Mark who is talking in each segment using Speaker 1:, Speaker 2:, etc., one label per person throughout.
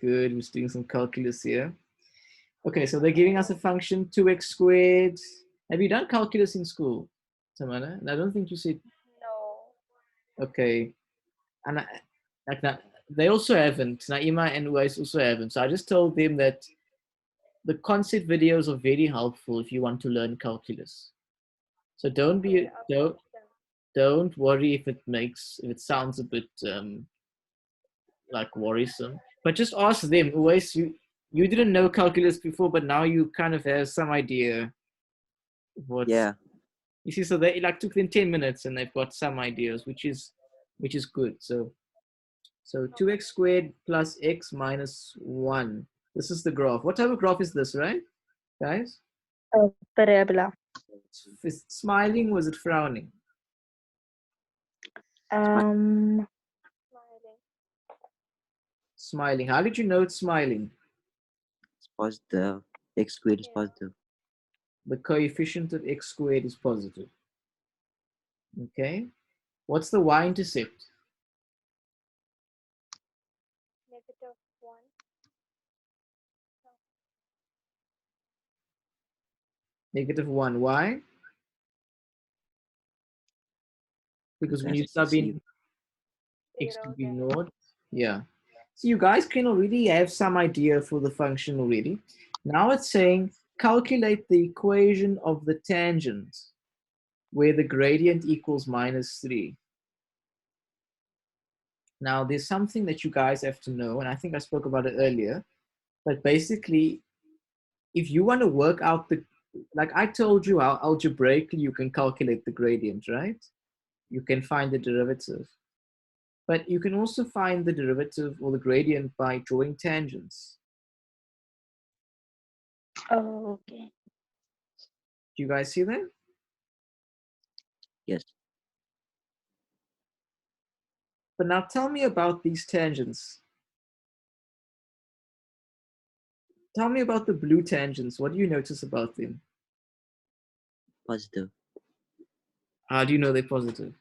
Speaker 1: Good, we're doing some calculus here. Okay, so they're giving us a function 2x squared. Have you done calculus in school, Samana? And I don't think you said,
Speaker 2: No.
Speaker 1: okay. And I, like that, they also haven't. Naima and Uwais also haven't. So I just told them that the concept videos are very helpful if you want to learn calculus. So don't be,
Speaker 2: okay, I'll
Speaker 1: don't,
Speaker 2: teach them.
Speaker 1: don't worry if it makes if it sounds a bit um like worrisome but just ask them always you you didn't know calculus before but now you kind of have some idea what
Speaker 3: Yeah.
Speaker 1: you see so they it like took them 10 minutes and they've got some ideas which is which is good so so 2x squared plus x minus 1 this is the graph what type of graph is this right guys
Speaker 2: Parabola.
Speaker 1: is it smiling was it frowning
Speaker 2: Um,
Speaker 1: smiling how did you know it's smiling
Speaker 3: It's positive. X squared is
Speaker 2: Yeah.
Speaker 3: positive.
Speaker 1: the coefficient of x squared is positive. Okay, what's the y-intercept?
Speaker 2: negative one.
Speaker 1: Negative one. Why? Because when
Speaker 3: That's
Speaker 1: you sub in
Speaker 3: perceived.
Speaker 1: x to
Speaker 2: zero,
Speaker 1: be
Speaker 2: then
Speaker 1: naught, yeah. So you guys can already have some idea for the function already. Now it's saying calculate the equation of the tangent where the gradient equals minus 3. Now, there's something that you guys have to know, and I think I spoke about it earlier, but basically, if you want to work out the, like I told you how algebraically you can calculate the gradient, right? You can find the derivative. But you can also find the derivative or the gradient by drawing tangents.
Speaker 2: Oh, okay.
Speaker 1: Do you guys see that?
Speaker 3: Yes.
Speaker 1: But now tell me about these tangents. Tell me about the blue tangents. What do you notice about them?
Speaker 3: Positive.
Speaker 1: How do you know they're positive?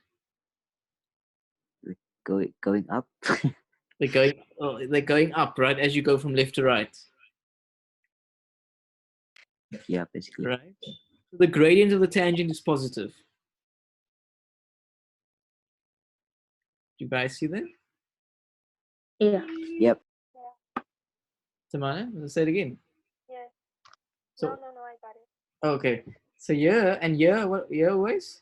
Speaker 3: Going going up.
Speaker 1: They're going, oh, they're going up, right? As you go from left to right,
Speaker 3: yeah, basically.
Speaker 1: right? So the gradient of the tangent is positive. Do you guys see that?
Speaker 2: Yeah.
Speaker 3: Yep.
Speaker 1: Tamana, let's say it again.
Speaker 2: Yes.
Speaker 1: So-
Speaker 2: no, no, no. I got it.
Speaker 1: Okay. So yeah, and yeah, what yeah always?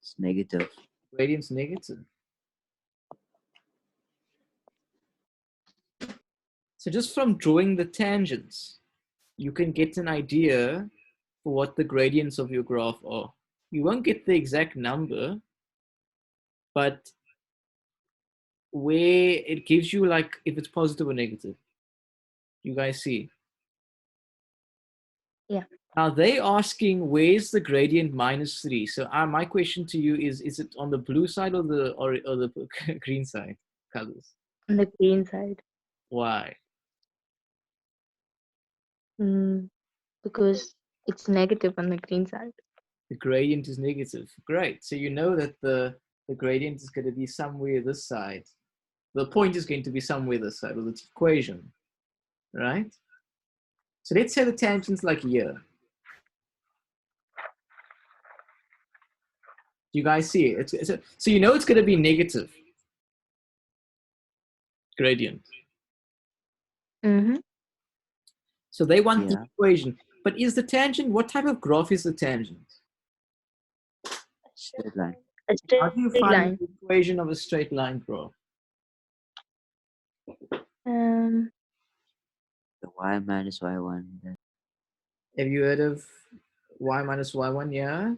Speaker 3: It's negative.
Speaker 1: Gradient's negative. So just from drawing the tangents, you can get an idea for what the gradients of your graph are. You won't get the exact number, but where it gives you like if it's positive or negative. You guys see?
Speaker 2: Yeah.
Speaker 1: Now they asking where's the gradient minus three. So uh, my question to you is: Is it on the blue side or the or, or the green side colors?
Speaker 2: On the green side.
Speaker 1: Why?
Speaker 4: Mm, because it's negative on the green side.
Speaker 1: The gradient is negative. Great. So you know that the the gradient is going to be somewhere this side. The point is going to be somewhere this side of the equation, right? So let's say the tangent's like here. Do you guys see it? It's, it's a- so you know it's going to be negative gradient.
Speaker 4: Mm-hmm.
Speaker 1: So they want the
Speaker 3: Yeah.
Speaker 1: equation. But is the tangent, what type of graph is the tangent?
Speaker 2: A straight
Speaker 3: Straight line.
Speaker 4: A
Speaker 1: How do you
Speaker 4: straight
Speaker 1: find
Speaker 4: line.
Speaker 1: the equation of a straight line graph?
Speaker 4: Um,
Speaker 3: The y minus y one. the-
Speaker 1: Have you heard of y minus y1, yeah?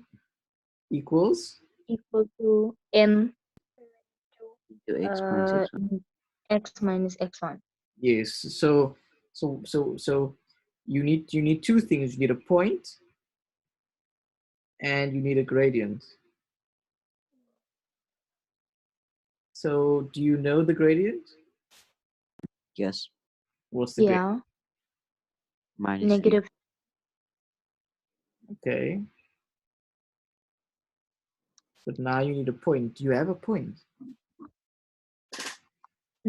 Speaker 1: Equals?
Speaker 4: equal to m
Speaker 2: Two.
Speaker 3: Into x minus
Speaker 4: uh,
Speaker 3: x one.
Speaker 4: x minus x1.
Speaker 1: Yes. So so so so you need you need two things. You need a point and you need a gradient. So do you know the gradient?
Speaker 3: Yes.
Speaker 1: What's the gradient?
Speaker 4: Yeah,
Speaker 3: Minus three.
Speaker 4: negative.
Speaker 1: Okay. But now you need a point. Do you have a point?